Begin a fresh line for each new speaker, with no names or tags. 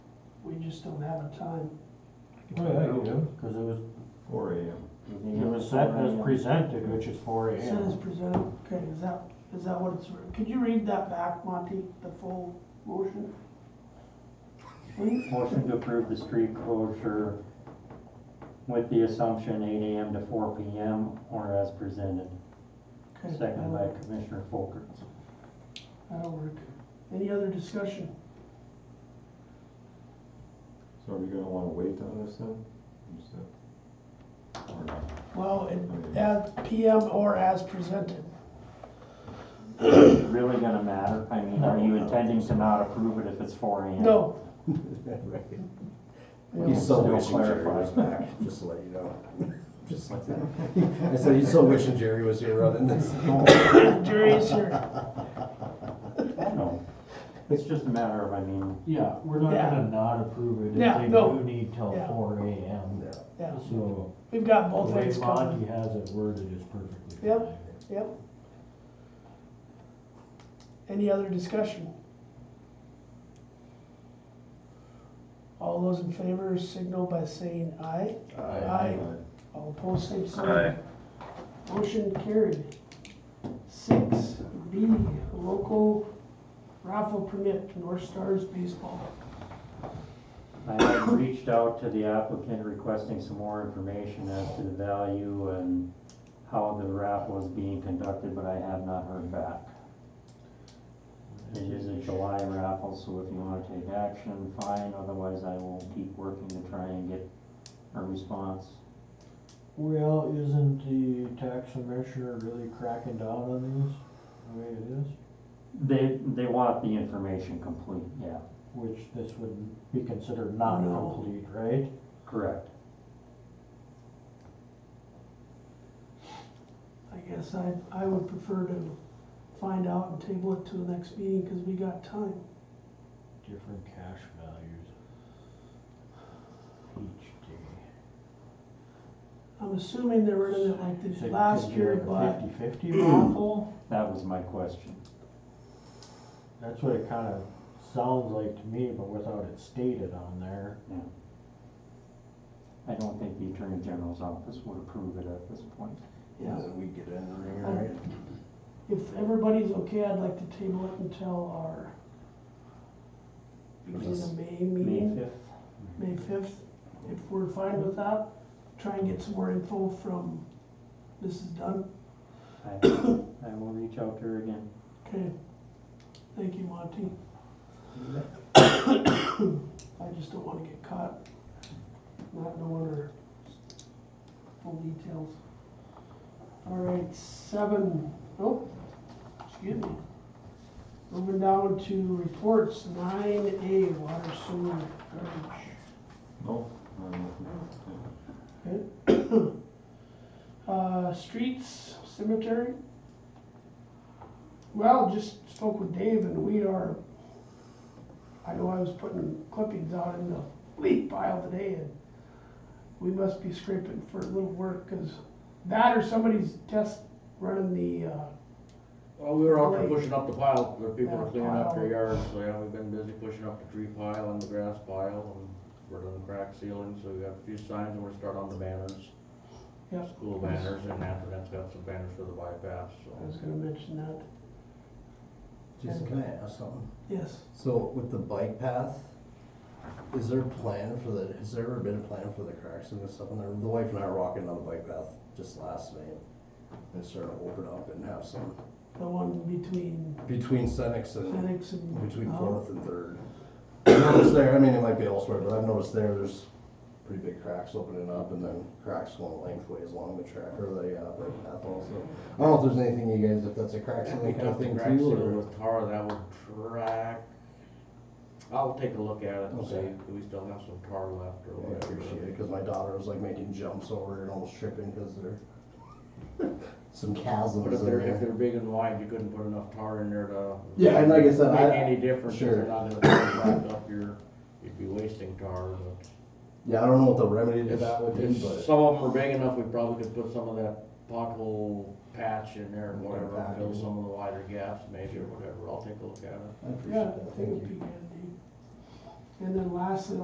just don't have a time.
Oh, yeah, you do.
Cause it was,
Four AM.
Mm-hmm.
it was set as presented, which is four
Set as
AM.
presented, okay, is that, is that what it's, could you read that back, Monty, the full motion? Please?
Motion to approve the street closure with the assumption eight AM to four PM or as presented.
Okay,
Seconded by
that'll-
Commissioner Folkerts.
That'll work. Any other discussion?
So are we gonna wanna wait on this then? Just, uh, or not?
Well, as PM or as presented.
Really gonna matter? I mean, are you intending to not approve it if it's four AM?
No.
He's so
Still
wishing Jerry
clarifying.
was back, just to let you know. Just like that. I said, he's so wishing Jerry was here running this.
Jerry's here.
No. It's just a matter of, I mean,
Yeah, we're not
Yeah.
gonna not approve it
Yeah,
if they
no.
do need till
Yeah.
four AM.
Yeah.
Yeah,
So
we've got
the
both
way
ways coming.
Monty has it worded is perfectly fine.
Yep. Yep. Any other discussion? All those in favor signal by saying aye. Aye. All opposed, same sign. Motion carried. Six B, local raffle permit, North Stars Baseball.
I have reached out to the applicant requesting some more information as to the value and how the raffle is being conducted, but I have not heard back. It is a July raffle, so if you wanna take action, fine, otherwise I will keep working to try and get a response.
Well, isn't the tax commissioner really cracking down on these, the way it is?
They, they want the information complete, yeah,
Which this would be considered not
No.
complete, right?
correct.
I guess I, I would prefer to find out and table it to the next meeting, cause we got time.
Different cash values each day.
I'm assuming they were in it like
So
this
you
last
could do
year,
like a
but,
Fifty-fifty raffle?
That was my question.
That's what it kinda sounds like to me, but without it stated on there.
I don't think the Attorney General's office would approve it at this point.
yeah.
Then we get in the ring, right?
If everybody's okay, I'd like to table it until our, is it a May
May
meeting?
fifth?
May fifth, if we're fine with that, try and get some more info from Mrs. Dunn.
I, I will reach out to her again.
Okay, thank you, Monty. I just don't wanna get caught not knowing her full details. All right, seven, oh, excuse me. Moving down to reports, nine A, water sewer garbage.
No? I don't know.
Uh, streets, cemetery. Well, just spoke with Dave and we are, I know I was putting clippings out in the leaf pile today and we must be scraping for a little work, cause that or somebody's test running the, uh,
Well, we were out there
Right.
pushing up the pile, the people were
Yeah,
cleaning up their
pile.
yards, so yeah, we've been busy pushing up the tree pile and the grass pile, and we're doing crack sealing, so we got a few signs, and we're starting on the banners.
Yep.
School banners, and Athenette's got some banners for the bypass,
I was
so.
gonna mention that,
Jason, can I ask something?
yes.
So with the bike path, is there a plan for the, has there ever been a plan for the cracks and this stuff in there? The wife and I were walking down the bike path just last night. and It started to open up and have some,
The one between
between Senex and
Phoenix and.
Between
Oh.
uh,
fourth and third. I've noticed there, I mean, it might be elsewhere, but I've noticed there, there's pretty big cracks opening up and then cracks going lengthways along the track or the, uh, bike path also. I don't know if there's anything you guys, if that's a crack sealing kind of thing
Crack
too,
sealer
or.
with tar, that would track. I'll take a look at it and see,
Okay.
if we still have some tar left or
Oh, I
whatever.
appreciate it, cause my daughter was like making jumps over it and almost tripping, cause there, some
But if
chasms in
they're, if
there.
they're big and wide, you couldn't put enough tar in there to.
Yeah, and like I said, I-
Make any difference, if
sure.
they're not gonna crack up your, you'd be wasting tar, but.
Yeah, I don't know what the remedy to
If,
that would be,
if
but.
some of them are big enough, we probably could put some of that pothole patch in there and
Okay,
whatever, and fill
patch.
some of the wider gaps maybe or whatever, I'll take a look at it.
I appreciate
Yeah,
that,
I think
thank
it'd
you.
be good, Dave. And then lastly,